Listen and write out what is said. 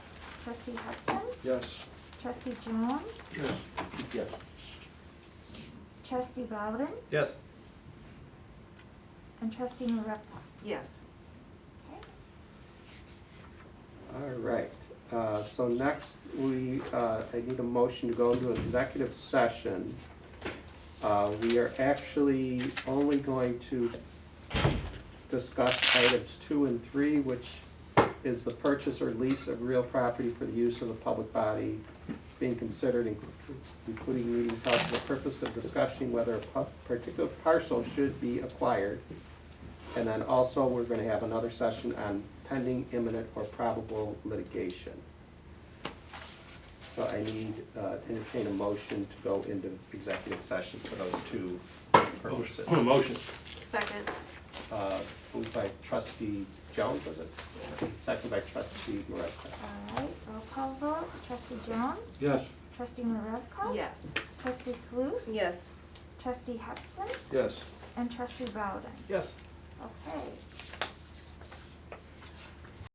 Trustee Hudson, Yes. trustee Jones, Yes. Yes. trustee Bowden, Yes. and trustee Maravka. Yes. Okay. All right, uh, so next, we, uh, I need a motion to go into executive session. Uh, We are actually only going to discuss items two and three, which is the purchase or lease of real property for the use of the public body being considered, in- including meetings held for the purpose of discussing whether a pu- particular parcel should be acquired. And then also, we're gonna have another session on pending imminent or probable litigation. So I need, uh, entertain a motion to go into executive session for those two purposes. Motion. Second. Uh, Moved by trustee Jones, was it? Second by trustee Moravka. All right, roll call vote, trustee Jones, Yes. trustee Maravka. Yes. Trustee Sluse. Yes. Trustee Hudson Yes. and trustee Bowden. Yes. Okay,